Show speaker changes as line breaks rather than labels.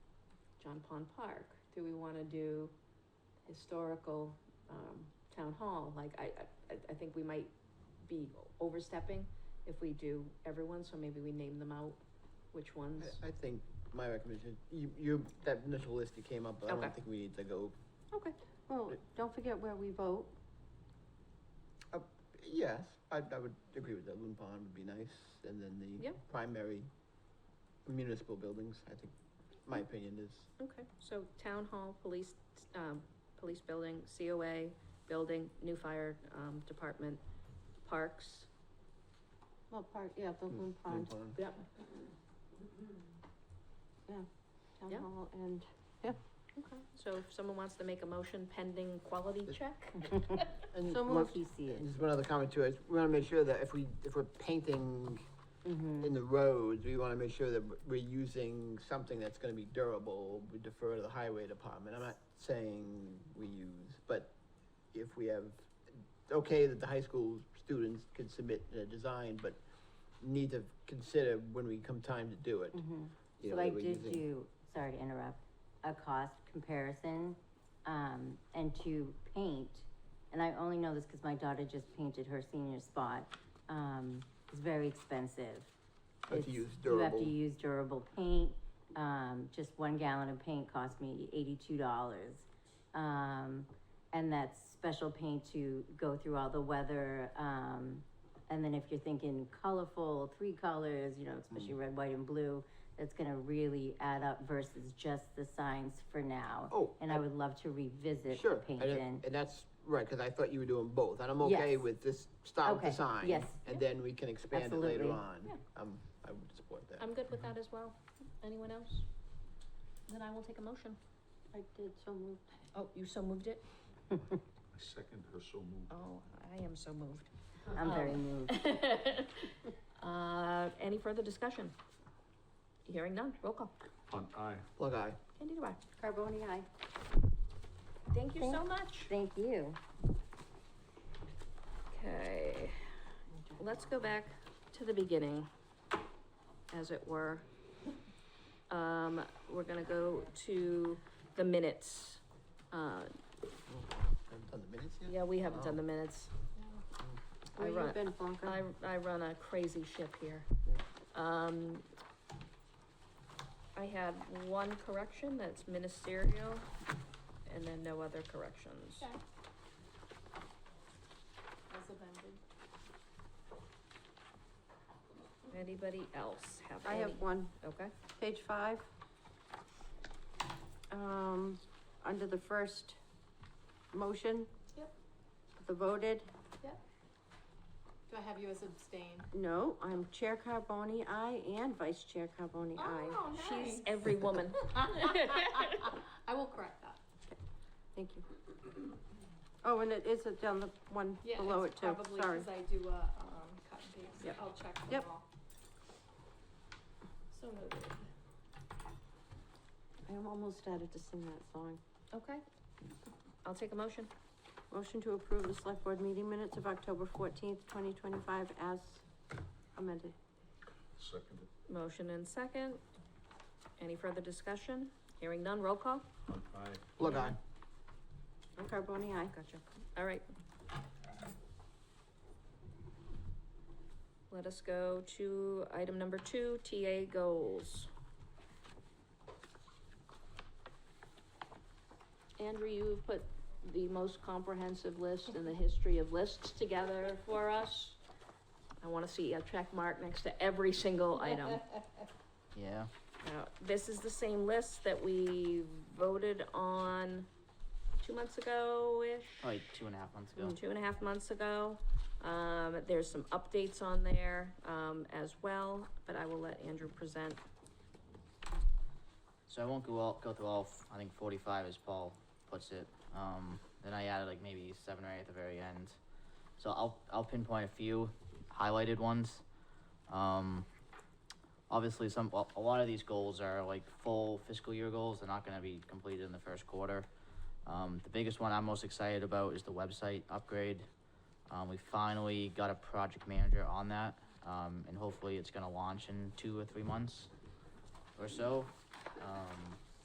on Pond Park? Do we want to do historical, um, town hall? Like, I, I, I think we might be overstepping if we do everyone, so maybe we name them out, which ones?
I, I think my recommendation, you, you, that initial list you came up, with, I
Okay.
don't think we need to go,
Okay,
Well, don't forget where we vote.
yes, I, I would agree with that, Loon Pond would be nice, and then the
Yeah.
primary municipal buildings, I think, my opinion is,
okay, so town hall, police, um, police building, COA, building, new fire, um, department, parks.
Well, part, yeah, the
Mm,
Loon
Loon
Pond,
Pond.
Yep.
Town
Yeah.
Hall, and
Okay, so if someone wants to make a motion pending quality check?
And
so
one-
moved, you see it.
Just one other comment too, is we wanna make sure that if we, if we're painting
Mm-hmm.
in the roads, we wanna make sure that we're using something that's gonna be durable, we defer to the highway department, I'm not saying we use, but if we have, okay that the high school students can submit a design, but need to consider when we come time to do it.
Mhm.
you know,
So I
that we're
did
using-
do, sorry to interrupt, a cost comparison, um, and to paint, and I only know this because my daughter just painted her senior spot, um, it's very expensive.
Have to
It's-
use
You have
durable.
to use durable paint, um, just one gallon of paint cost me eighty-two dollars. Um, and that's special paint to go through all the weather, um, and then if you're thinking colorful, three colors, you know,
Mm.
especially red, white, and blue, that's gonna really add up versus just the signs for now.
Oh,
And
I-
I would love to revisit the
Sure, I
paint
don't-
in.
and that's right, cause I thought you were doing both, and I'm okay
Yes.
with this, start with the
Okay,
sign.
yes.
And then we can expand it later
Absolutely. Um,
Yeah.
on, um, I would support that.
I'm good with that as well. Anyone else? Then I will take a motion.
I did, so moved.
Oh, you so moved it?
I second her so moved.
Oh, I am so moved.
I'm very moved.
Uh, any further discussion? Hearing none, roll call.
Hunt, aye.
Plug eye.
Candida Bar.
Carboni, aye.
Thank you so much.
Thank you.
Okay, let's go back to the beginning, as it were. Um, we're gonna go to the minutes. Uh,
Haven't done the minutes yet?
yeah, we haven't done the minutes. I
Where you
run-
been, Blanca?
I, I run a crazy ship here. Um, I had one correction that's ministerial and then no other corrections.
As amended.
Anybody else have
I
any?
have one.
Okay,
Page five. Um, under the first motion.
Yep.
The voted,
Do I have you as abstain?
no, I'm Chair Carboni, aye, and Vice Chair Carboni, aye.
Oh,
she's
nice.
every woman.
I will correct that.
Thank you. Oh, and it is down the one
Yeah,
below it
it's
too,
probably
sorry.
because I do a um, cut and paste.
Yep.
I'll check them
Yep.
all. So noted.
I'm almost started to sing that song.
Okay. I'll take a motion.
Motion to approve the select board meeting minutes of October fourteenth, twenty twenty-five as amended.
Seconded.
Motion and second. Any further discussion? Hearing none, roll call?
Hunt, aye.
Plug eye.
And Carboni, aye.
Gotcha. All right. Let us go to item number two, TA goals. Andrew, you put the most comprehensive list in the history of lists together for us. I want to see a check mark next to every single item.
Yeah.
Now, this is the same list that we voted on two months ago-ish?
like two and a half months ago.
Two and a half months ago. Um, there's some updates on there, um, as well, but I will let Andrew present.
So I won't go all go through all. f- I think forty five, as Paul puts it. Um, then I added like maybe seven or eight at the very end. So I'll I'll pinpoint a few highlighted ones. Um, obviously, some a a lot of these goals are like full fiscal year goals. They're not going to be completed in the first quarter. Um, the biggest one I'm most excited about is the website upgrade. Um, we finally got a project manager on that, um, and hopefully it's going to launch in two or three months or so. Um,